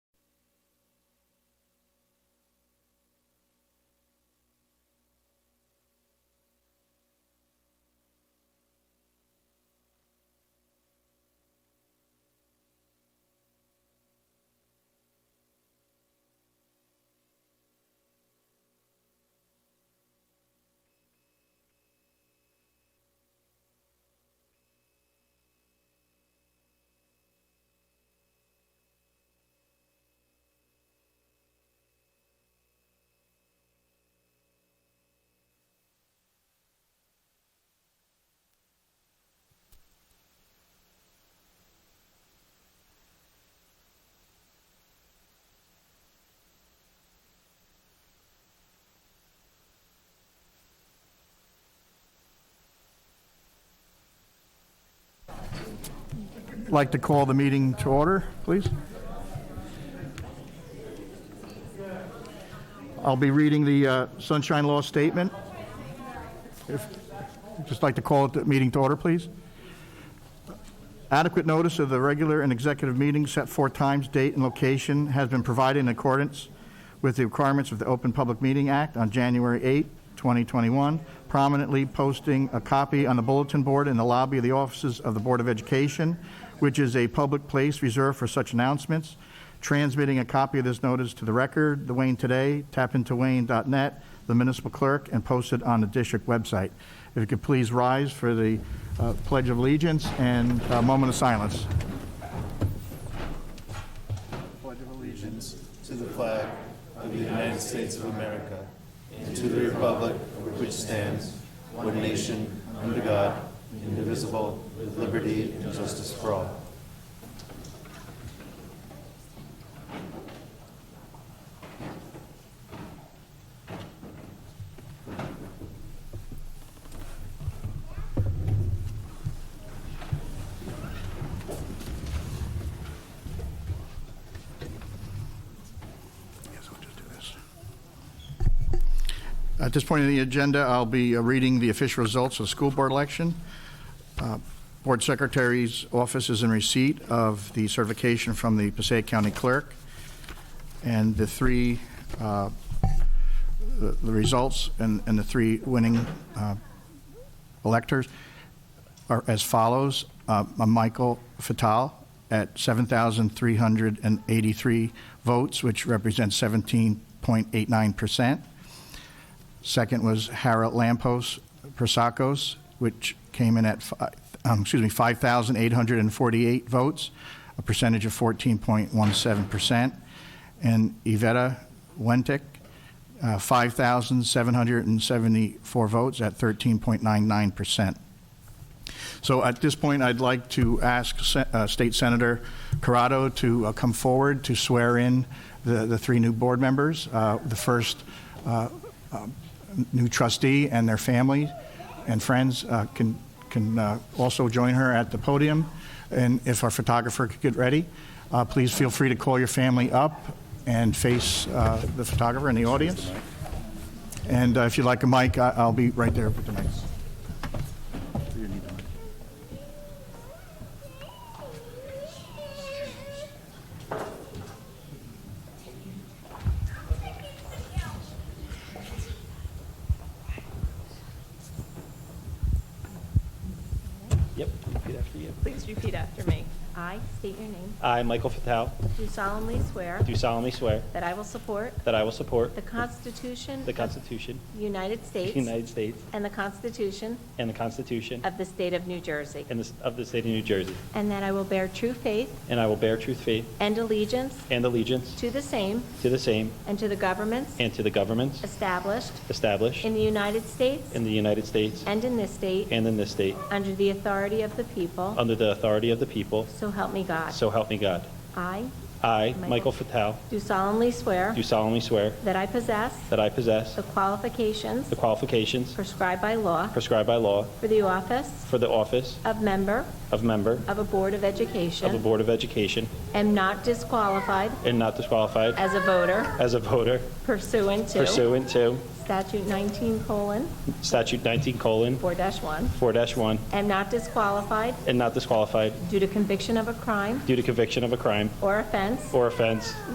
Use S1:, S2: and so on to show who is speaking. S1: like to call the meeting to order, please. I'll be reading the uh, Sunshine Law Statement. If- Just like to call it the meeting to order, please. Adequate notice of the regular and executive meetings set forth times, date, and location has been provided in accordance with the requirements of the Open Public Meeting Act on January 8, 2021, prominently posting a copy on the bulletin board in the lobby of the offices of the Board of Education, which is a public place reserved for such announcements, transmitting a copy of this notice to the record, the Wayne Today, tapintoWayne.net, the municipal clerk, and posted on the district website. If you could please rise for the uh, Pledge of Allegiance and a moment of silence.
S2: pledge of allegiance to the flag of the United States of America and to the republic for which stands one nation under God, indivisible, with liberty and justice for all.
S1: Yes, we'll just do this. At this point in the agenda, I'll be uh, reading the official results of the school board election. Uh, Board Secretary's office is in receipt of the certification from the Passaic County Clerk, and the three, uh, the the results and and the three winning uh, electors are as follows. Uh, Michael Fatal at 7,383 votes, which represents 17.89%. Second was Harold Lampos Prasakos, which came in at, fi- um, excuse me, 5,848 votes, a percentage of 14.17%. And Iveta Wentic, uh, 5,774 votes at 13.99%. So at this point, I'd like to ask Se- uh, State Senator Corrado to uh, come forward to swear in the the three new board members, uh, the first uh, um, new trustee and their family and friends uh, can can uh, also join her at the podium. And if our photographer could get ready, uh, please feel free to call your family up and face uh, the photographer in the audience. And uh, if you'd like a mic, I- I'll be right there with the mics.
S3: Yep, repeat after you.
S4: Please repeat after me. I state your name.
S3: I, Michael Fatale,
S4: Do solemnly swear
S3: do solemnly swear
S4: that I will support
S3: that I will support
S4: the Constitution
S3: the
S4: of
S3: Constitution
S4: the United
S3: of
S4: States
S3: the United States
S4: and the Constitution
S3: and the Constitution
S4: of the State of New Jersey,
S3: and the- of the State of New Jersey,
S4: and that I will bear true faith
S3: and I will bear true faith
S4: and allegiance
S3: and allegiance
S4: to the same
S3: to the same
S4: and to the governments
S3: and to the governments
S4: established
S3: established
S4: in the United States
S3: in the United States
S4: and in this state
S3: and in this state,
S4: under the authority of the people,
S3: under the authority of the people,
S4: so help me God.
S3: so help me God.
S4: I
S3: I,
S4: Michael-
S3: Michael Fatale,
S4: do solemnly swear
S3: do solemnly swear
S4: that I possess
S3: that I possess
S4: the qualifications
S3: the qualifications
S4: prescribed by law
S3: prescribed by law
S4: for the office
S3: for the office
S4: of member
S3: of member
S4: of a Board
S3: of
S4: of
S3: a
S4: Education
S3: Board of Education
S4: am not disqualified
S3: and not disqualified
S4: as a voter
S3: as a voter
S4: pursuant to
S3: pursuant to
S4: statute 19 colon
S3: Statute 19 colon
S4: 4-1,
S3: 4-1,
S4: am not disqualified
S3: and not disqualified
S4: due to conviction of a crime
S3: due to conviction of a crime
S4: or offense
S3: or offense